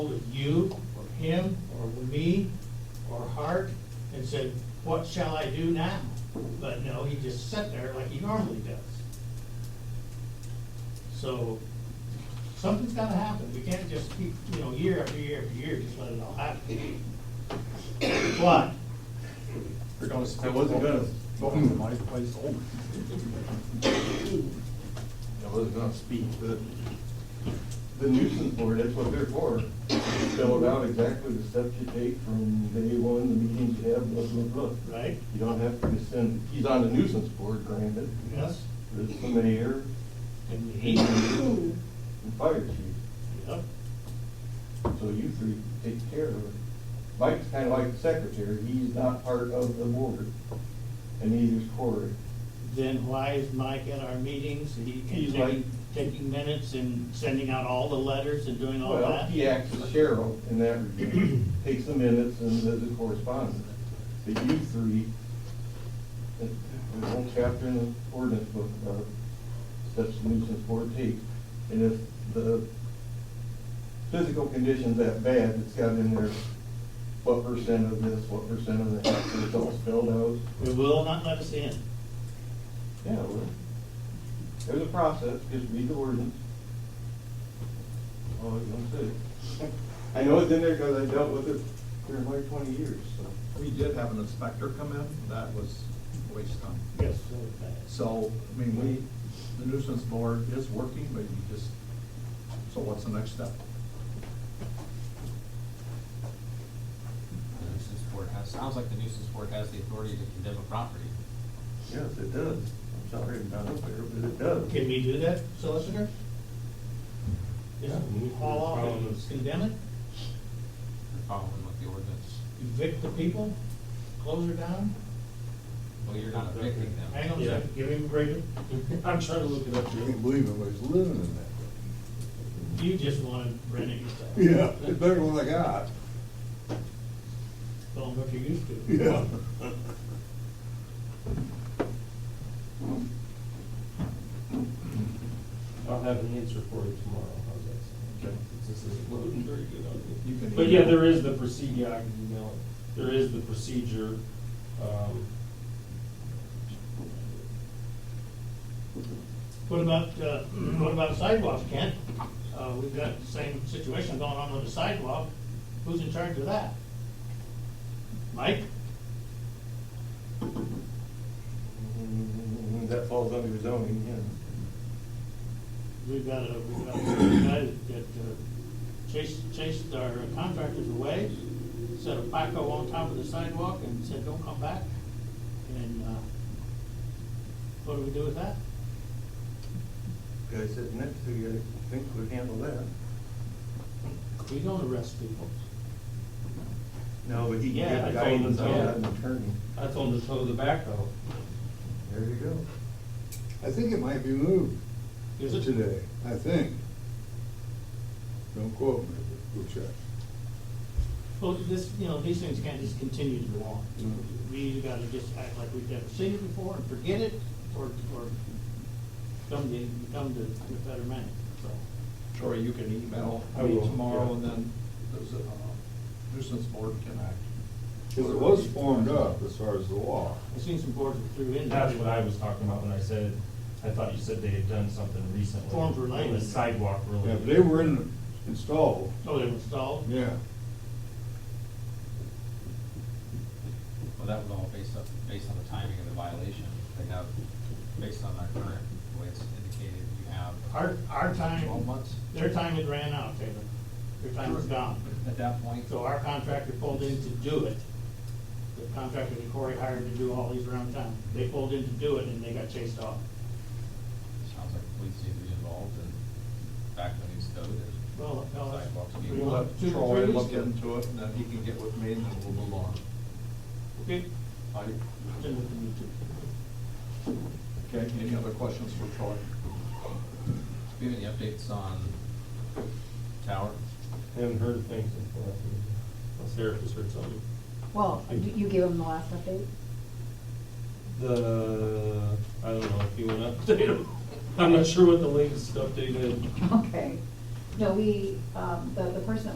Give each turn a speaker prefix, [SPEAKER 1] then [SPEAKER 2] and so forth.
[SPEAKER 1] you, or him, or me, or Hart, and said, what shall I do now? But no, he just sat there like he normally does. So, something's gotta happen, we can't just keep, you know, year after year after year, just let it all happen. But,
[SPEAKER 2] I wasn't gonna vote for
[SPEAKER 3] Mm-hmm.
[SPEAKER 2] my place
[SPEAKER 3] Oh,
[SPEAKER 2] over. I wasn't gonna speak, but the nuisance board, that's what they're for. Spelled out exactly the steps you take from day one, the meetings you have, blah, blah, blah.
[SPEAKER 1] right,
[SPEAKER 2] You don't have to send, he's on the nuisance board, granted,
[SPEAKER 1] yes,
[SPEAKER 2] but it's the mayor
[SPEAKER 1] and
[SPEAKER 2] and
[SPEAKER 1] he,
[SPEAKER 2] the fire chief.
[SPEAKER 1] yep,
[SPEAKER 2] So you three take care of it. Mike's kinda like the secretary, he's not part of the board, and neither is Cory.
[SPEAKER 1] then why is Mike at our meetings, he,
[SPEAKER 2] He's
[SPEAKER 1] and
[SPEAKER 2] like-
[SPEAKER 1] taking, taking minutes and sending out all the letters and doing all
[SPEAKER 2] Well,
[SPEAKER 1] that?
[SPEAKER 2] he acts as sheriff in that regard, takes the minutes and does the correspondence. But you three, uh, there's a whole chapter in the ordinance book about steps the nuisance board takes. And if the physical condition's that bad, it's got in there what percent of this, what percent of that, so it's all spelled out.
[SPEAKER 1] It will not let us in.
[SPEAKER 2] Yeah, well, there's a process, just read the ordinance. All I was gonna say. I know it's in there because I dealt with it for like twenty years, so.
[SPEAKER 3] We did have an inspector come in, that was a waste of time.
[SPEAKER 1] Yes.
[SPEAKER 3] So, I mean, we, the nuisance board is working, but you just, so what's the next step?
[SPEAKER 4] The nuisance board has, sounds like the nuisance board has the authority to condemn a property.
[SPEAKER 2] Yes, it does. I'm sorry, I'm not up there, but it does.
[SPEAKER 1] Can we do that, solicitor? Just
[SPEAKER 2] Yeah.
[SPEAKER 1] haul off and condemn it,
[SPEAKER 4] They're following what the ordinance,
[SPEAKER 1] evict the people, close her down?
[SPEAKER 4] well, you're not evicting them.
[SPEAKER 1] Hang on a
[SPEAKER 5] Yeah.
[SPEAKER 1] second, give him a break.
[SPEAKER 5] I'm trying to look it up
[SPEAKER 6] I
[SPEAKER 5] here.
[SPEAKER 6] can't believe anybody's living in that.
[SPEAKER 1] You just wanna rent it yourself.
[SPEAKER 6] Yeah, it's better than what I got.
[SPEAKER 1] Don't look you used to.
[SPEAKER 6] Yeah.
[SPEAKER 5] I'll have an answer for you tomorrow, how's that sound?
[SPEAKER 3] Okay.
[SPEAKER 5] This isn't loading very good on me.
[SPEAKER 3] You can
[SPEAKER 5] But yeah,
[SPEAKER 3] email.
[SPEAKER 5] there is the procedure, I can email it, there is the procedure, um,
[SPEAKER 1] What about, uh, what about sidewalks, Kent? Uh, we've got the same situation going on with the sidewalk, who's in charge of that? Mike?
[SPEAKER 2] Mm, That falls under zoning, yeah.
[SPEAKER 1] We've got a, we've got a guy that uh, chased, chased our contractors away, set a backhoe on top of the sidewalk and said, don't come back. And, uh, what do we do with that?
[SPEAKER 2] Guy sitting next to you, I think would handle that.
[SPEAKER 1] We don't arrest people.
[SPEAKER 2] No, but he
[SPEAKER 5] Yeah,
[SPEAKER 2] can
[SPEAKER 5] I
[SPEAKER 2] give
[SPEAKER 5] told him
[SPEAKER 2] guidance on
[SPEAKER 5] so.
[SPEAKER 2] that and attorney.
[SPEAKER 5] I told him to tow the backhoe.
[SPEAKER 2] There you go.
[SPEAKER 6] I think it might be moved
[SPEAKER 1] Is it?
[SPEAKER 6] today, I think. Don't quote me, but go check.
[SPEAKER 1] Well, this, you know, these things can't just continue to go on.
[SPEAKER 6] No.
[SPEAKER 5] Mm-hmm.
[SPEAKER 1] We either gotta just act like we've never seen it before and forget it, or, or come to, come to a better man, so.
[SPEAKER 3] Troy, you can email
[SPEAKER 5] I
[SPEAKER 3] me
[SPEAKER 5] will,
[SPEAKER 3] tomorrow,
[SPEAKER 5] yeah.
[SPEAKER 3] and then there's a uh, nuisance board can act.
[SPEAKER 6] Because it was formed up as far as the law.
[SPEAKER 1] I've seen some boards that threw in.
[SPEAKER 5] That's what I was talking about when I said, I thought you said they had done something recently.
[SPEAKER 1] Forms were
[SPEAKER 5] It was
[SPEAKER 1] laid.
[SPEAKER 5] sidewalk
[SPEAKER 6] Yeah, but
[SPEAKER 5] related.
[SPEAKER 6] they were in, installed,
[SPEAKER 1] Oh, they were installed?
[SPEAKER 6] yeah.
[SPEAKER 4] Well, that was all based up, based on the timing of the violation. They have, based on our current, the way it's indicated, you have
[SPEAKER 1] Our, our time,
[SPEAKER 4] twelve months.
[SPEAKER 1] their time had ran out, Taylor. Their time was gone.
[SPEAKER 4] At that point,
[SPEAKER 1] So our contractor pulled in to do it. The contractor that Corey hired to do all these around town, they pulled in to do it and they got chased off.
[SPEAKER 4] sounds like the police need to be involved and back when these code, there's
[SPEAKER 1] Well, no, that's.
[SPEAKER 4] sidewalks.
[SPEAKER 1] we
[SPEAKER 3] We'll
[SPEAKER 1] want
[SPEAKER 3] let
[SPEAKER 1] two-
[SPEAKER 3] Troy
[SPEAKER 1] three
[SPEAKER 3] look
[SPEAKER 1] weeks.
[SPEAKER 3] into it, and then he can get with me, and then we'll move on.
[SPEAKER 1] Okay,
[SPEAKER 3] I,
[SPEAKER 1] then we can do two.
[SPEAKER 3] okay, any other questions for Troy?
[SPEAKER 4] Do you have any updates on tower?
[SPEAKER 5] Haven't heard things before. Unless Eric has heard something.
[SPEAKER 7] Well, you you gave them the last update?
[SPEAKER 5] The, I don't know if you want to update them. I'm not sure what the latest update is.
[SPEAKER 7] Okay. No, we, um, the, the person that